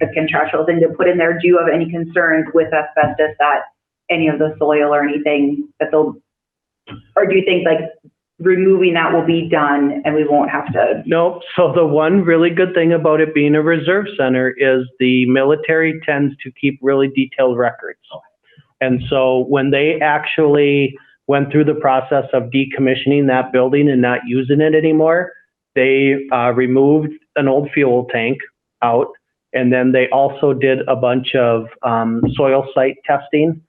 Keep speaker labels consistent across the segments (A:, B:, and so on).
A: as contractual thing to put in there, do you have any concerns with asbestos that any of the soil or anything that they'll, or do you think like removing that will be done and we won't have to?
B: Nope. So the one really good thing about it being a reserve center is the military tends to keep really detailed records. And so when they actually went through the process of decommissioning that building and not using it anymore, they uh, removed an old fuel tank out. And then they also did a bunch of um, soil site testing.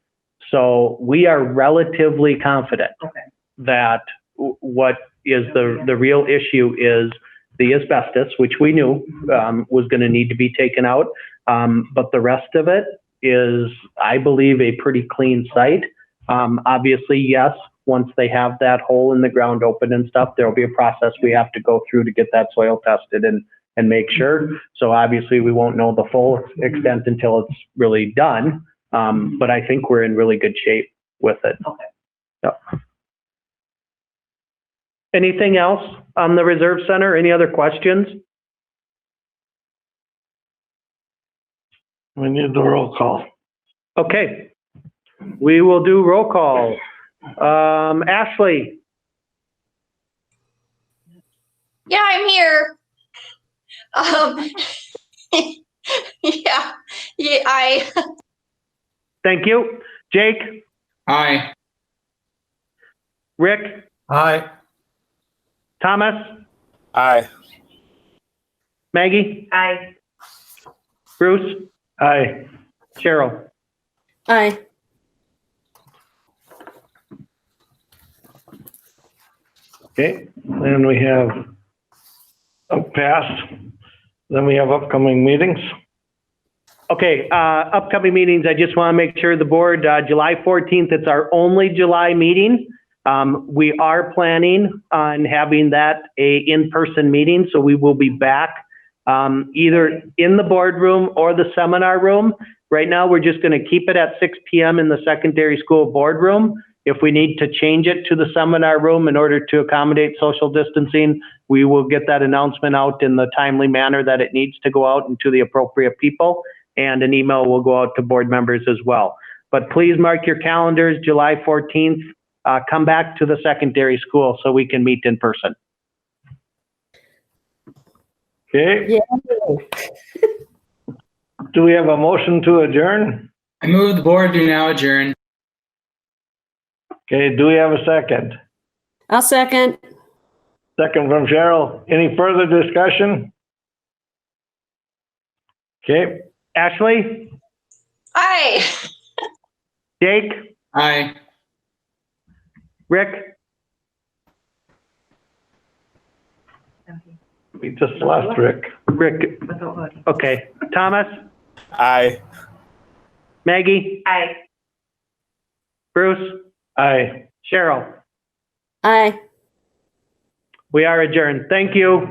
B: So we are relatively confident
A: Okay.
B: that w- what is the, the real issue is the asbestos, which we knew, um, was gonna need to be taken out. Um, but the rest of it is, I believe, a pretty clean site. Um, obviously, yes, once they have that hole in the ground open and stuff, there'll be a process we have to go through to get that soil tested and, and make sure. So obviously, we won't know the full extent until it's really done. Um, but I think we're in really good shape with it.
A: Okay.
B: Yep. Anything else on the Reserve Center? Any other questions?
C: We need the roll call.
B: Okay. We will do roll call. Um, Ashley,
D: Yeah, I'm here. Um, yeah, yeah, I,
B: thank you. Jake,
E: Aye.
B: Rick,
C: Aye.
B: Thomas,
F: Aye.
B: Maggie,
A: Aye.
B: Bruce,
C: Aye.
B: Cheryl.
G: Aye.
C: Okay, then we have a pass. Then we have upcoming meetings.
B: Okay, uh, upcoming meetings, I just want to make sure the board, uh, July 14th, it's our only July meeting. Um, we are planning on having that a in-person meeting, so we will be back, um, either in the boardroom or the seminar room. Right now, we're just going to keep it at 6 PM in the secondary school boardroom. If we need to change it to the seminar room in order to accommodate social distancing, we will get that announcement out in the timely manner that it needs to go out and to the appropriate people and an email will go out to board members as well. But please mark your calendars, July 14th, uh, come back to the secondary school so we can meet in person.
C: Okay,
G: Yeah.
C: do we have a motion to adjourn?
E: I move the board to now adjourn.
C: Okay, do we have a second?
G: I'll second.
C: Second from Cheryl. Any further discussion? Okay,
B: Ashley,
D: I.
B: Jake,
E: Aye.
B: Rick,
C: we just lost Rick.
B: Rick, okay, Thomas,
F: Aye.
B: Maggie,
A: Aye.
B: Bruce,
C: Aye.
B: Cheryl.
G: Aye.
B: We are adjourned. Thank you.